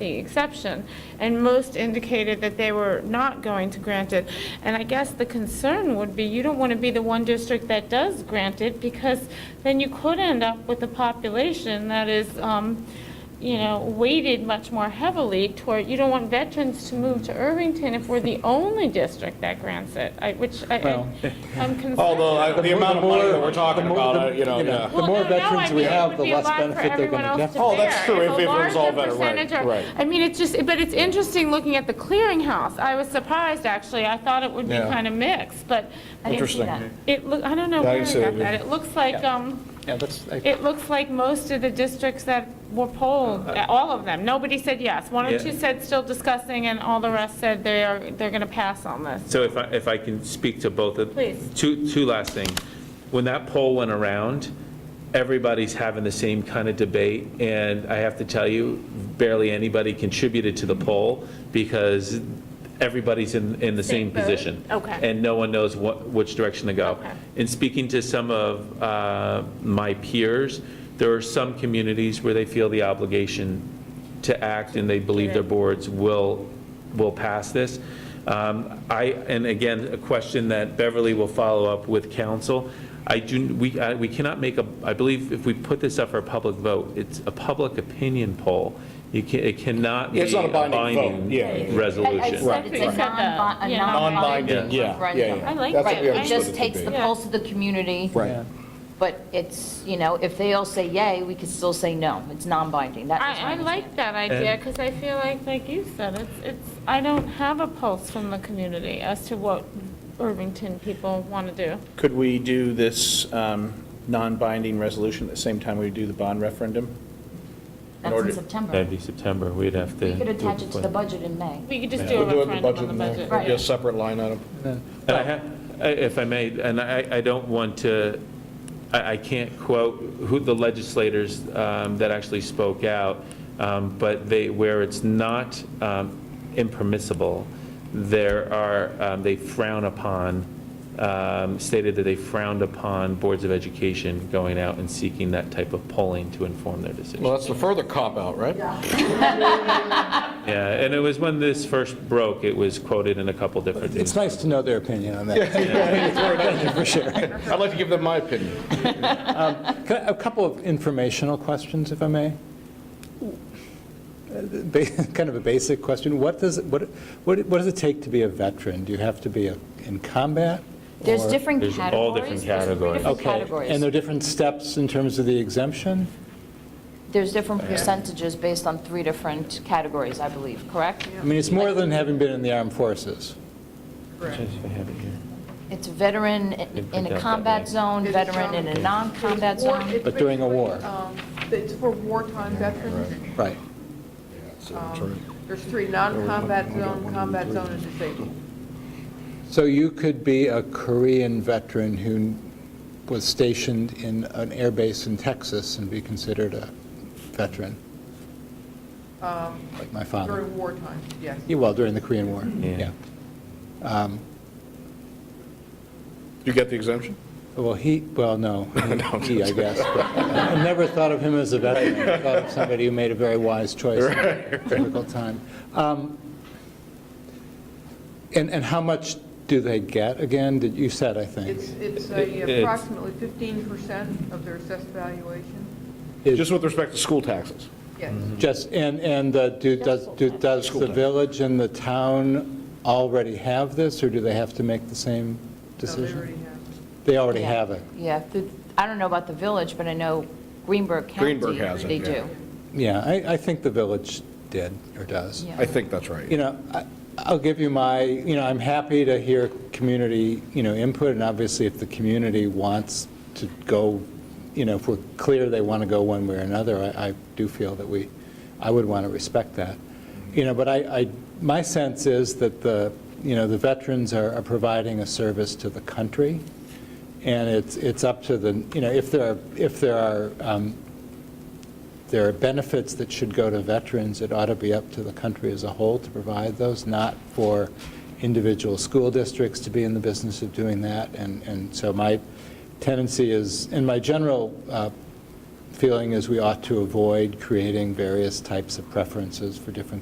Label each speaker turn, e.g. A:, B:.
A: the exception, and most indicated that they were not going to grant it. And I guess the concern would be, you don't want to be the one district that does grant it, because then you could end up with a population that is, um, you know, weighted much more heavily toward, you don't want veterans to move to Irvington if we're the only district that grants it, I- which I- I-
B: Well,
A: I'm concerned.
C: Although, I- the
B: more-
C: amount of money
B: more-
C: that we're talking
B: the more-
C: about,
B: the-
C: uh, you know, yeah.
B: The more
A: Well, no, no, I
B: veterans we
A: mean, it
B: have,
A: would
B: the
A: be a
B: less
A: lot for
B: benefit they're
A: everyone
B: going to
A: else
B: get.
A: to
C: Oh, that's
A: bear.
C: true,
A: If
C: if
A: a
C: it was all
A: larger
C: better, right,
A: percentage are-
C: right.
A: I mean, it's just, but it's interesting looking at the clearinghouse. I was surprised, actually. I thought it would be
C: Yeah.
A: kind of mixed, but
D: I didn't see
C: Interesting.
D: that.
A: it, loo- I don't know
C: Yeah, I
A: where I
C: see
A: got
C: it,
A: that.
C: yeah.
A: It looks like, um,
B: Yeah, that's, I-
A: it looks like most of the districts that were polled,
C: Uh,
A: all of them, nobody said yes. One or
E: Yeah.
A: two said still discussing, and all the rest said they are, they're going to pass on this.
E: So if I, if I can speak to both of.
A: Please.
E: Two, two last things. When that poll went around, everybody's having the same kind of debate, and I have to tell you, barely anybody contributed to the poll, because everybody's in, in the
A: Same
E: same
A: boat?
E: position.
A: Okay.
E: And no one knows what, which direction to go.
A: Okay.
E: In speaking to some of uh, my peers, there are some communities where they feel the obligation to act, and they believe their boards will, will pass this. Um, I, and again, a question that Beverly will follow up with council. I do, we, I- we cannot make a, I believe if we put this up for a public vote, it's a public opinion poll. You can, it cannot be
C: It's not a
E: a
C: binding vote, yeah, yeah,
E: binding
C: yeah.
E: resolution.
D: I- I said it's a
A: Right.
D: non-bi- a
A: Yeah.
C: Non-binding,
D: non-binding
B: yeah,
D: referendum.
C: yeah, yeah.
A: I like
C: That's what
A: that.
C: we
A: I
D: It
C: understood
D: just
C: to
D: takes
C: be.
D: the
A: Yeah.
D: pulse of the community,
B: yeah.
C: Right.
D: but it's, you know, if they all say yay, we could still say no. It's non-binding. That was my
A: I, I like that idea,
E: And-
A: because I feel like, like you said, it's, it's, I don't have a pulse from the community as to what Irvington people want to do.
F: Could we do this um, non-binding resolution at the same time we do the bond referendum?
D: understanding. That's in September.
E: That'd be September, we'd have to.
D: We could
E: do
D: attach it to
E: before.
D: the budget in May.
A: We could just do a
C: We'll do it in
A: referendum on the budget.
C: and then do a separate line item.
E: And I ha- I- If I may, and I, I don't want to, I, I can't quote who the legislators um, that actually spoke out, um, but they, where it's not um, impermissible, there are, um, they frown upon, um, stated that they frowned upon boards of education going out and seeking that type of polling to inform their decision.
C: Well, that's the further cop-out, right?
E: Yeah, and it was when this first broke, it was quoted in a couple different
B: It's nice to know their opinion on that.
C: I'd like to give them my opinion.
B: Can I- A couple of informational questions, if I may. Uh, ba- Kind of a basic question. What does, what, what what does it take to be a veteran? Do you have to be a- in combat?
D: There's
B: or-
D: different
E: There's
D: categories.
E: all different
D: There's three
E: categories.
D: different
B: Okay,
D: categories.
B: and there are different steps in terms of the exemption?
D: There's different percentages based on three different categories, I believe, correct?
B: I mean, it's more than having been in the armed forces.
D: It's veteran
E: You
D: in
E: put
D: in
E: that
D: a
E: that
D: combat
E: way.
D: zone,
G: It's
D: veteran in a
G: zone.
D: non-combat
G: It's war-
D: zone.
G: it's
B: But during a war.
G: basically, um, It's for wartime veterans. um,
B: Right.
G: There's three, non-combat zone, combat zone, and disabled.
B: So you could be a Korean veteran who was stationed in an air base in Texas and be considered a veteran,
G: Um,
B: like my father.
G: During wartime, yes.
B: Yeah, Well, during the Korean War, yeah.
E: Yeah.
B: Um,
C: You get the exemption?
B: Well, he, well, no, he, I guess. but I never thought of him as a veteran. I thought of somebody who made a very wise choice at a difficult time. Um, And, and how much do they get again? Did You said, I think.
G: It's, it's
E: It-
G: a
E: it's-
G: approximately fifteen percent of their assessed valuation,
B: Is-
C: Just with respect to school taxes.
G: yes.
B: Just, and, and uh, do, does, do- does the village and the town already have this, or do they have to make the same
G: So they already
B: decision?
G: have.
B: They already
D: Yeah.
B: have it,
D: Yeah, the- I don't know about the village, but I know Greenberg County,
C: Greenberg has it,
D: they
C: yeah.
D: do.
B: yeah, I, I think the village did, or does.
D: Yeah.
C: I think that's right.
B: You know, I- I'll give you my, you know, I'm happy to hear community, you know, input, and obviously if the community wants to go, you know, if we're clear they want to go one way or another, I, I do feel that we, I would want to respect that. You know, but I, I, my sense is that the, you know, the veterans are, are providing a service to the country, and it's, it's up to the, you know, if there are, if there are um, there are benefits that should go to veterans, it ought to be up to the country as a whole to provide those, not for individual school districts to be in the business of doing that. And, and so my tendency is, and my general uh, feeling is we ought to avoid creating various types of preferences for different